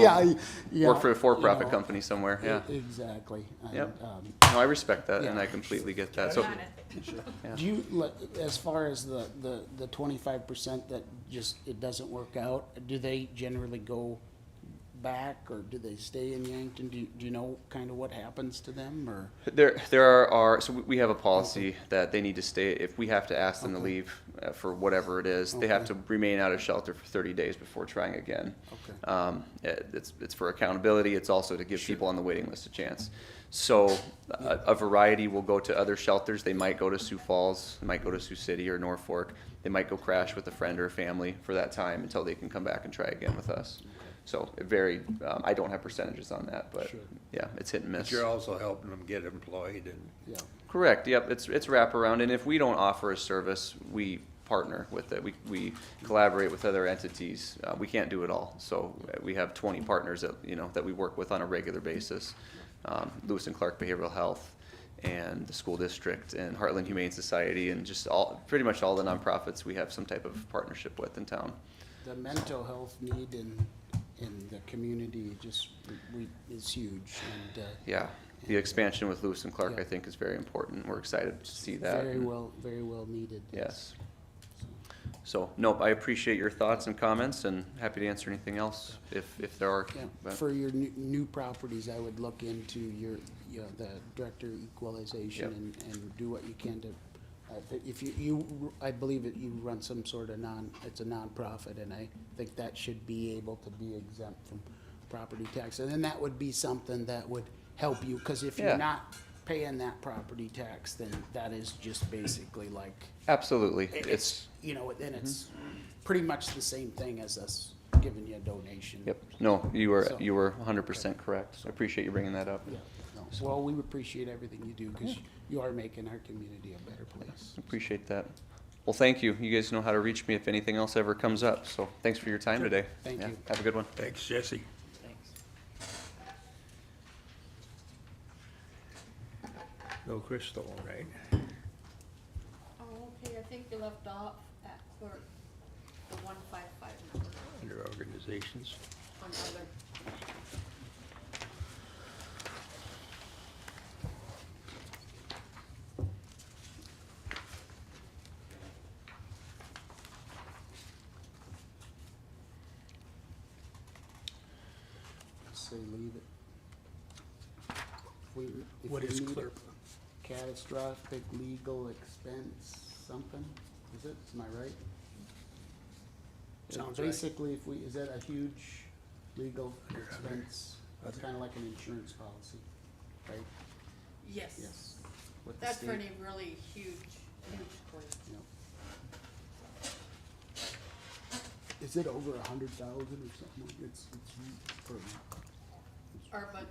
Yeah, I- yeah. Work for a for-profit you know, company somewhere, yeah. e- Exactly. And, Yep. um, No, I respect that, and Yeah. I completely get that. So, Do you, like, as far as the, the, the twenty-five percent that just, it doesn't work out, do they generally go back or do they stay in Yankton? Do you, do you know kind of what happens to them or? There, there are, are so we- we have a policy that they need to stay, if we have to ask them to leave uh, for whatever it is, they have to remain out of shelter for thirty days before trying again. Okay. Um, it- it's, it's for accountability, it's also to give people on the waiting list a chance. So a, a variety will go to other shelters, they might go to Sioux Falls, they might go to Sioux City or Norfolk. They might go crash with a friend or a family for that time until they can come back and try again with us. So it varied, um, I don't have percentages on that, but Sure. yeah, it's hit and miss. But you're also helping them get employed and, Yeah, Correct, yep, it's, it's wraparound, and if we don't offer a service, we partner with it, we, we collaborate with other entities, uh, we can't do it all, so uh, we have twenty partners that, you know, that we work with on a regular basis. Um, Lewis and Clark Behavioral Health, and the school district, and Heartland Humane Society, and just all, pretty much all the nonprofits we have some type of partnership with in town. the mental health need in, in the community just, we, is huge and, uh. Yeah, the expansion with Lewis and Clark, Yeah. I think, is very important, we're excited to see that. Very and- well, very well needed. Yes. So, nope, I appreciate your thoughts and comments and happy to answer anything else if, if there are. Yeah, but- for your new, new properties, I would look into your, you know, the director equalization Yep. and, and do what you can to, I thi- if you, you, I believe that you run some sort of non, it's a nonprofit, and I think that should be able to be exempt from property tax. And then that would be something that would help you, because if Yeah. you're not paying that property tax, then that is just basically like, Absolutely. it- It's, you know, then it's Mm-hmm. pretty much the same thing as us giving you a donation. yep, no, you were, So- you were hundred percent correct. I appreciate you bringing that up. Yeah, no. Well, we appreciate everything you do because you are making our community a better place. Appreciate that. Well, thank you. You guys know how to reach me if anything else ever comes up, so thanks for your time today. Thank Yeah, you. Have a good one. thanks, Jesse. No Crystal, right? Oh, okay, I think you left off at clerk, the one five five number Under organizations. on other. Say leave it. If we- if What we is need clerk? Catastrophic legal expense, something, is it? Am I right? Sounds right. Basically, if we, is that a huge legal expense? It's kind of like an insurance policy, right? Yes, Yes. With the that's for state. any really huge, huge claims. Is it over a hundred thousand or something? like- It's, it's per, Our bud,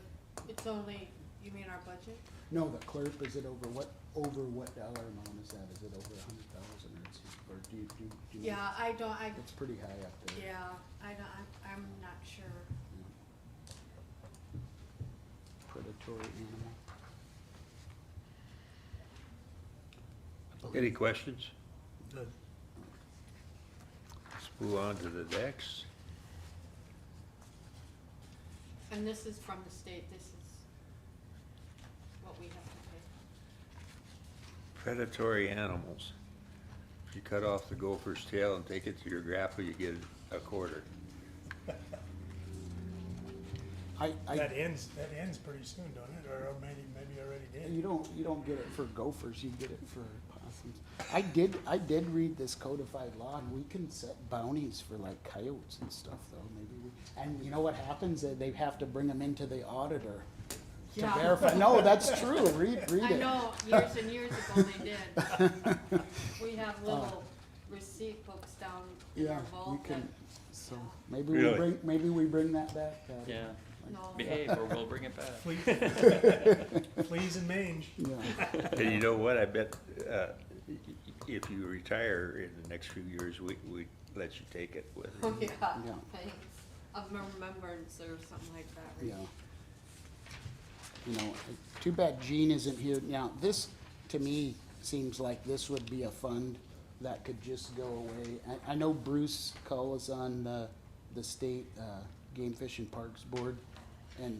it's only, you mean our budget? no, the clerk, is it over what, over what dollar amount is that? Is it over a hundred thousand or it's, or do you, do, do? you- Yeah, I don't, I, It's pretty high up there. yeah, I don't, I'm, I'm not sure. Predatory animal. Any questions? Let's move on to the next. And this is from the state, this is what we have to pay. Predatory animals. If you cut off the gopher's tail and take it to your grapple, you get a quarter. I, I, That ends, that ends pretty soon, don't it? Or maybe, maybe already you did. don't, you don't get it for gophers, you get it for possums. I did, I did read this codified law and we can set bounties for like coyotes and stuff though, maybe we, and you know what happens? They- They have to bring them into the auditor. to Yeah. verify. No, that's true. Read, read I it. know, years and years ago they did. We have little receipt books down in Uh. Yeah, our we vault that, can, so, maybe we Really? bring, maybe we bring that back, uh, Patty. Yeah, no. behave or we'll bring it back. Fleas and mange. Yeah, And you know what, I bet, uh, y- y- if you retire in the next few years, we, we let you take it with Oh, yeah, Yeah. thanks. Of remembrance or something like that, yeah. right? You know, it- too bad Gene isn't here. Now, this, to me, seems like this would be a fund that could just go away. I, I know Bruce Cull is on the, the state, uh, Game Fish and Parks Board